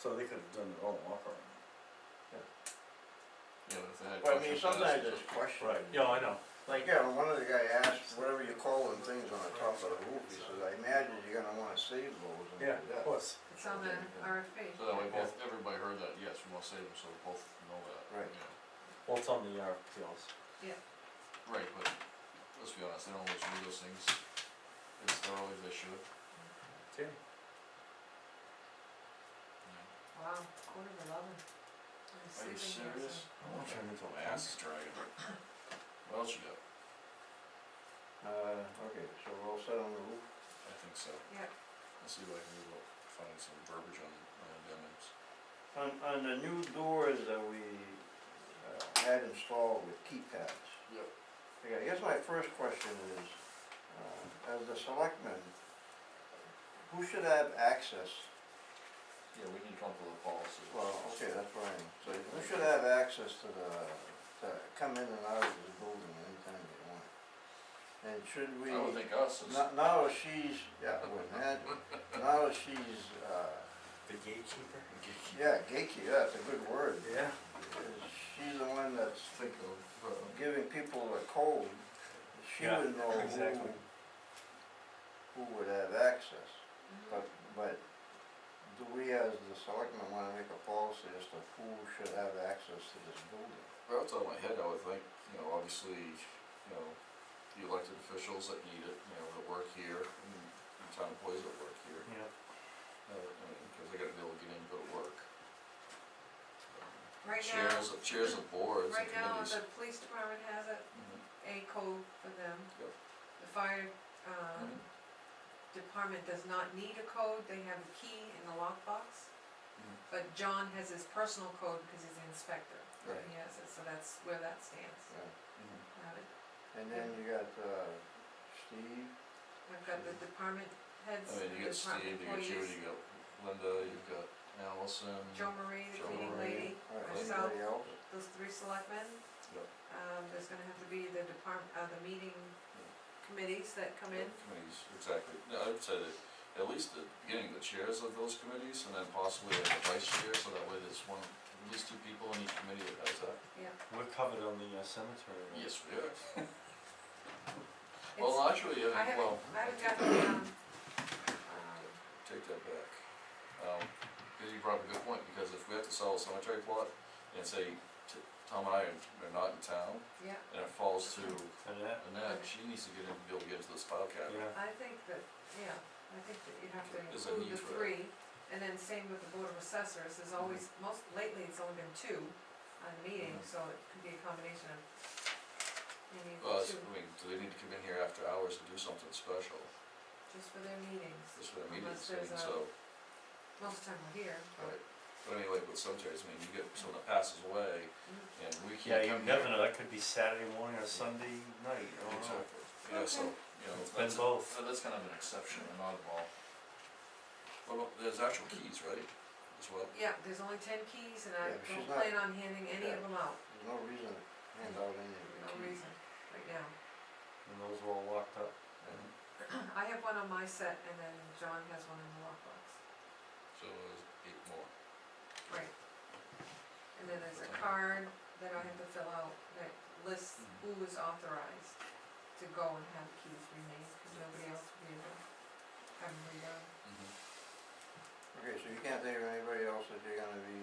So they could have done it all off our. Yeah, that's a head But I mean, question. for us sometimes to- it's question. Right. Yeah, I know. Like, yeah, when one of the guy asked, whatever you call them things on the top of the roof, he says, I imagine you're gonna wanna save those. and Yeah, do that." of course. It's on the RFP. So that way both, everybody heard that, yes, we want to save them, so we both know that. Right. Yeah, Well, it's on the RPLs. right, but let's be honest, they don't always do those things as thoroughly as they should. Yeah. you Wow, quarter of eleven. I'm know. Are you sleeping here, serious? so- I wanna turn into My a ass is dragging. What else you got? Uh, okay, so we're all set on the roof? I think so. Yeah, Let's see if I can move up, find some verbiage on, on amendments. On, on the new doors that we, uh, had installed with keypads, Yep. Okay, I guess my first question is, uh, as the selectman, who should have access, Yeah, we need to come up with a policy. well, okay, that's what I mean. So who should have access to the, to come in and out of the building anytime they want? And should we, I would think us is, no- now that she's, yeah, I would imagine, now that she's, uh, The gatekeeper? yeah, gatekeeper, that's a good word. Yeah. Is She's the one that's think of, uh, giving people a code, she Yeah, would know who, exactly. who would have access. mhm. Uh, But, but do we as the selectmen wanna make a policy as to who should have access to this building? Well, it's on my head, I would think, you know, obviously, you know, the elected officials that need it, you know, that work here, and the town employees that work here, Yeah. uh, I mean, cause they gotta be able to get in, and go to work. Mm-hmm. right now, Chairs, of- chairs of boards and right now, committees. the police department has a, Mhm, a code for them. Yep. The fire, mhm. um, department does not need a code, they have a key in the lockbox. But John has his personal code because he's the inspector, and Right. he has it, so that's where that stands. Yeah. Mhm. Now, And then you got, uh, Steve, I've got the department I heads, mean, you the got department Steve, you got you, employees, you got Linda, you've got Allison, Joe Marie, the Joe cleaning Marie. lady, or myself, anybody else? those three selectmen. Yep. Um, there's gonna have to be the department, uh, the meeting committees that come in. committees, exactly, no, I'd say that at least the beginning, the chairs of those committees, and then possibly like the vice chair, so that way there's one, at least two people in each committee that has that. We're covered on the uh, cemetery, right? Yes, we are. It's- Well, actually, I yeah, haven't, well, I haven't gotten, um, um, take that back. Um, 'cause you brought up a good point, because if we have to sell a cemetery plot, and say, T- Tom and I are- are not in town, yeah, and it falls to And that, Annette, she needs to get in, be able to get into this file cabinet. Oh, yeah, I think that, yeah, I think that you have to There's a include need the for that. three, and then same with the board of assessors, there's always, Mm-hmm. most, lately it's only been two on meetings, so it could be a combination of maybe Well, it's- two, I mean, do they need to come in here after hours to do something special, just for their meetings, just for the meetings, Unless I there's mean, a- so. most time we're here, but, Right, but I mean, like with cemeteries, I mean, you get someone that passes away, Mm-hmm. and we Yeah, can't you come here. never know, that could be Saturday morning or Sunday night, I don't Oh, know. Exactly, yeah, so, you know, It's been that's, both. Uh, That's kind of an exception, an oddball. Well, well, there's actual keys, right, as well? yeah, there's only ten keys, and Yeah, I but she's don't not- plan on handing any of Yeah. them out, There's no reason to hand out any of no the keys. reason, right now. and those were all locked up. Mhm. I have one on my set, and then John has one in the lockbox, So there's eight more. right. And then there's a card that I have to fill out that lists who Mm-hmm. is authorized to go and have keys remade, because nobody else will be able to have them redone. Mm-hmm. Mhm. Okay, so you can't think of anybody else that you're gonna be.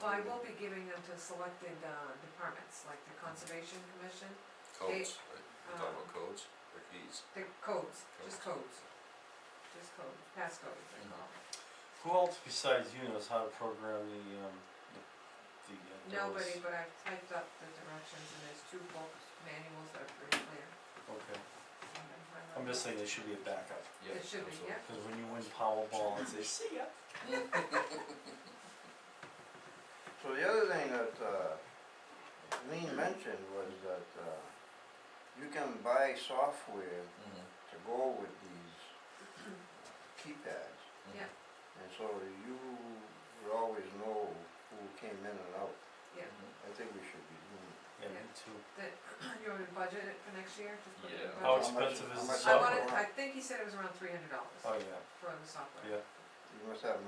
Well, I will be giving them to selected, uh, departments, like the Conservation Commission, Codes, right, we're talking um, about codes or keys. the codes, just codes, just codes, passcodes, they call them. Who else besides you knows how to program the, um, the, the, uh, doors? Nobody, but I've typed up the directions, and there's two book manuals that are pretty clear. Okay, on them. I I'm wrote just saying there should be a backup, Yeah, It should be, absolutely. yeah. cause when you win Powerball, it's, it's, So the other thing that, uh, Lean mentioned was that, uh, you can buy software Mhm, to go with these keypads. mhm. Yeah. And so you would always know who came in and out. Yeah. Mhm. I think we should be doing that. yeah, me Yeah. too. that you want me to budget it for next year, just put it in Yeah. the How budget? much- expensive is the how much- I Oh, software? wanted, I think he said it was around three hundred dollars Oh, yeah, for the software. yeah. You must have